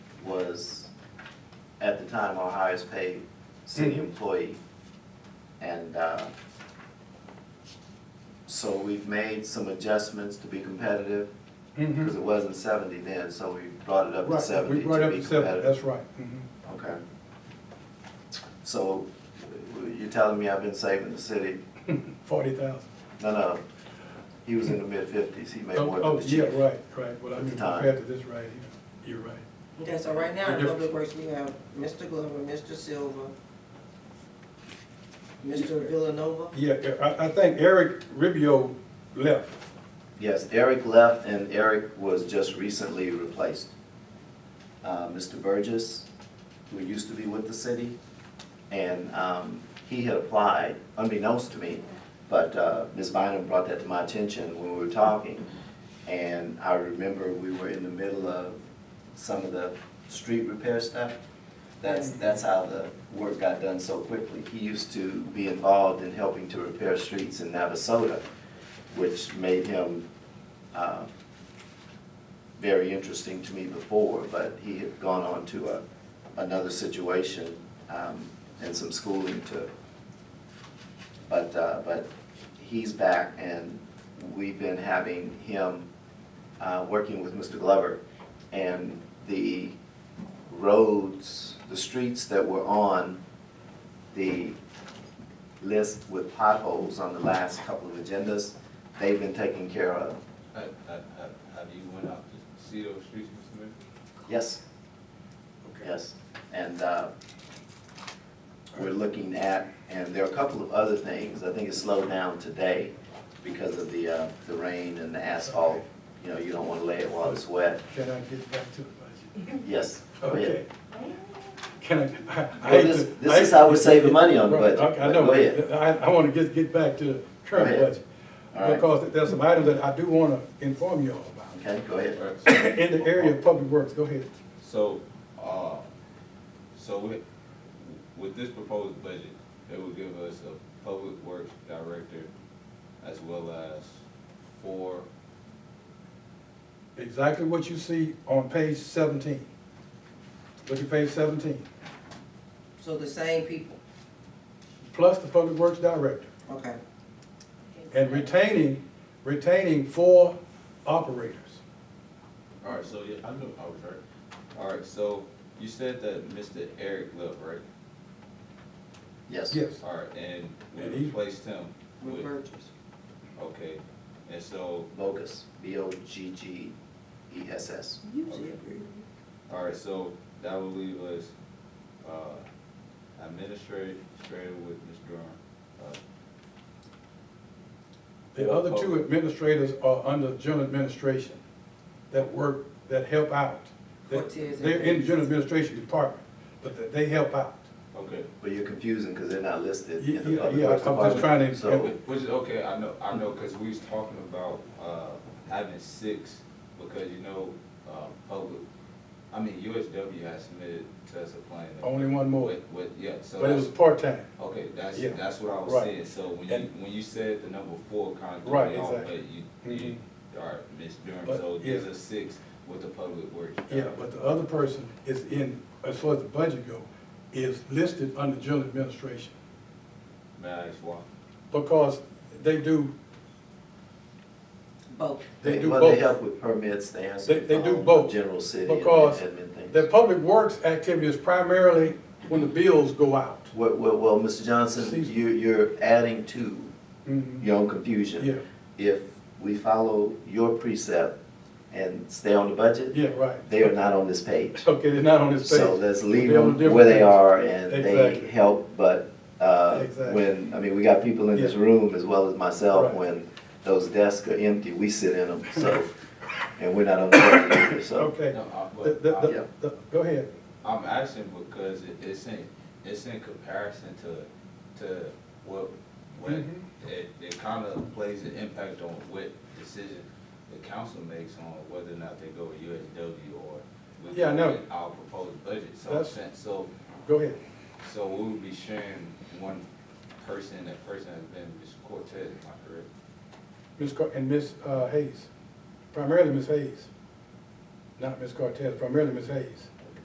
was at the time our highest paid city Mm-hmm. employee. And, uh, so we've made some adjustments to be competitive, Mhm. because it wasn't seventy then, so we brought it up to Right, seventy we to be brought up competitive. to seven, that's right. Mhm. Okay. So you're telling me I've been saving the city? mm-hmm. Forty thousand. No, no. He was in the mid fifties. He made Oh, more oh, than the yeah, chief. right, right, well, I At the mean, time. compared to this right here, you're right. Okay, so right now in They're Public Works, we have Mr. Glover, Mr. Silver, Mr. Villanova. Yeah, I, I think Eric Ribio left, Yes, Eric left and Eric was just recently replaced. Uh, Mr. Burgess, who used to be with the city, and, um, he had applied unbeknownst to me. But, uh, Ms. Bynum brought that to my attention when we were talking. And I remember we were in the middle of some of the street repair stuff. That's, that's how the work got done so quickly. He used to be involved in helping to repair streets in Navasota, which made him uh, very interesting to me before, but he had gone on to a- another situation um, and some schooling to, but, uh, but he's back and we've been having him uh, working with Mr. Glover. And the roads, the streets that were on the list with potholes on the last couple of agendas, they've been taken care of. Have, have, have- have you went out to see those streets, Mr. Mayor? Yes, yes. And uh, we're looking at, and there are a couple of other things. I think it slowed down today because of the, uh, the rain and the asphalt. You know, you don't want to lay it while it's wet. can I get back to the budget? Yes. go ahead. Okay. Can I- I? I Oh, Well, hate this- to- this I hate is to how we're get- saving money on the Right, budget, I- I but know, go ahead. I, I wanna just get back to the current ahead. budget. All right. Because there's some items that I do wanna inform you all about. Okay, go ahead. Or- so- In the area of public works, go ahead. So, uh, so with, with this proposed budget, it would give us a public works director as well as four, Exactly what you see on page seventeen. Look at page seventeen, So the same people, plus the public works director. okay. And retaining, retaining four operators. all right, so, yeah, I knew I was right. All right, so you said that Mr. Eric left, right? Yes. Yes, All right, and And we he- replaced him With with, Burgess. okay, and so, Bogus, E B-O-G-G-E-S-S. All right, so that will leave us, uh, administrative, straight with Ms. Durham. Uh, the other two administrators are under general administration that work, that help out. That- Cortez and- They're in the general administration department, but that they help out. Uh, Okay, Well, you're confusing because they're not listed in the Yeah, public yeah, works I'm just trying to- department, so, which is okay, I know, I know, cause we was talking about, uh, having six, because you know, uh, public, I mean, USW has submitted to us a plan. Only one more, With, with, yeah, so but it was that's, part-time. okay, that's, Yeah, that's what I was right. saying, so when you, And- when you said the number four kind of. threw Right, me off, exactly. Mm-hmm. But you, you, all right, Ms. Durham, so But, there's yeah. a six with the public works. Yeah, but the other person is in, as far as the budget go, is listed under general administration. May I ask why? Because they do, Both. they they, do well, they both. help with permits, they answer They- the they do phone, both, general city and because admin things. The public works activity is primarily when the bills go out. Well, well, well, Mr. Johnson, Excuse me. you, you're adding to Mhm. your own confusion. Yeah, If we follow your precept and stay on the budget, yeah, right. they are not on this page. Okay, they're not on this page. So let's leave They're on a them different where they page. are and they Exactly. help, but, uh, Exactly. when, I mean, we got people in this Yeah. room as well as myself, Right. when those desks are empty, we sit in them, so, and we're not on the budget either, so. Okay. No, The- I- but the- I- the- uh, yeah. the- Go ahead. I'm asking because it- it's in, it's in comparison to, to what, what, Mhm. it, it kind of plays an impact on what decision the council makes on whether or not they go with USW or with Yeah, I know. with our proposed budget, so, I'm That's- saying- so, Go ahead. so we would be sharing one person, that person has been Ms. Cortez, am I correct? Ms. Car, and Ms. uh, Hayes, primarily Ms. Hayes. Not Ms. Cortez, primarily Ms. Hayes.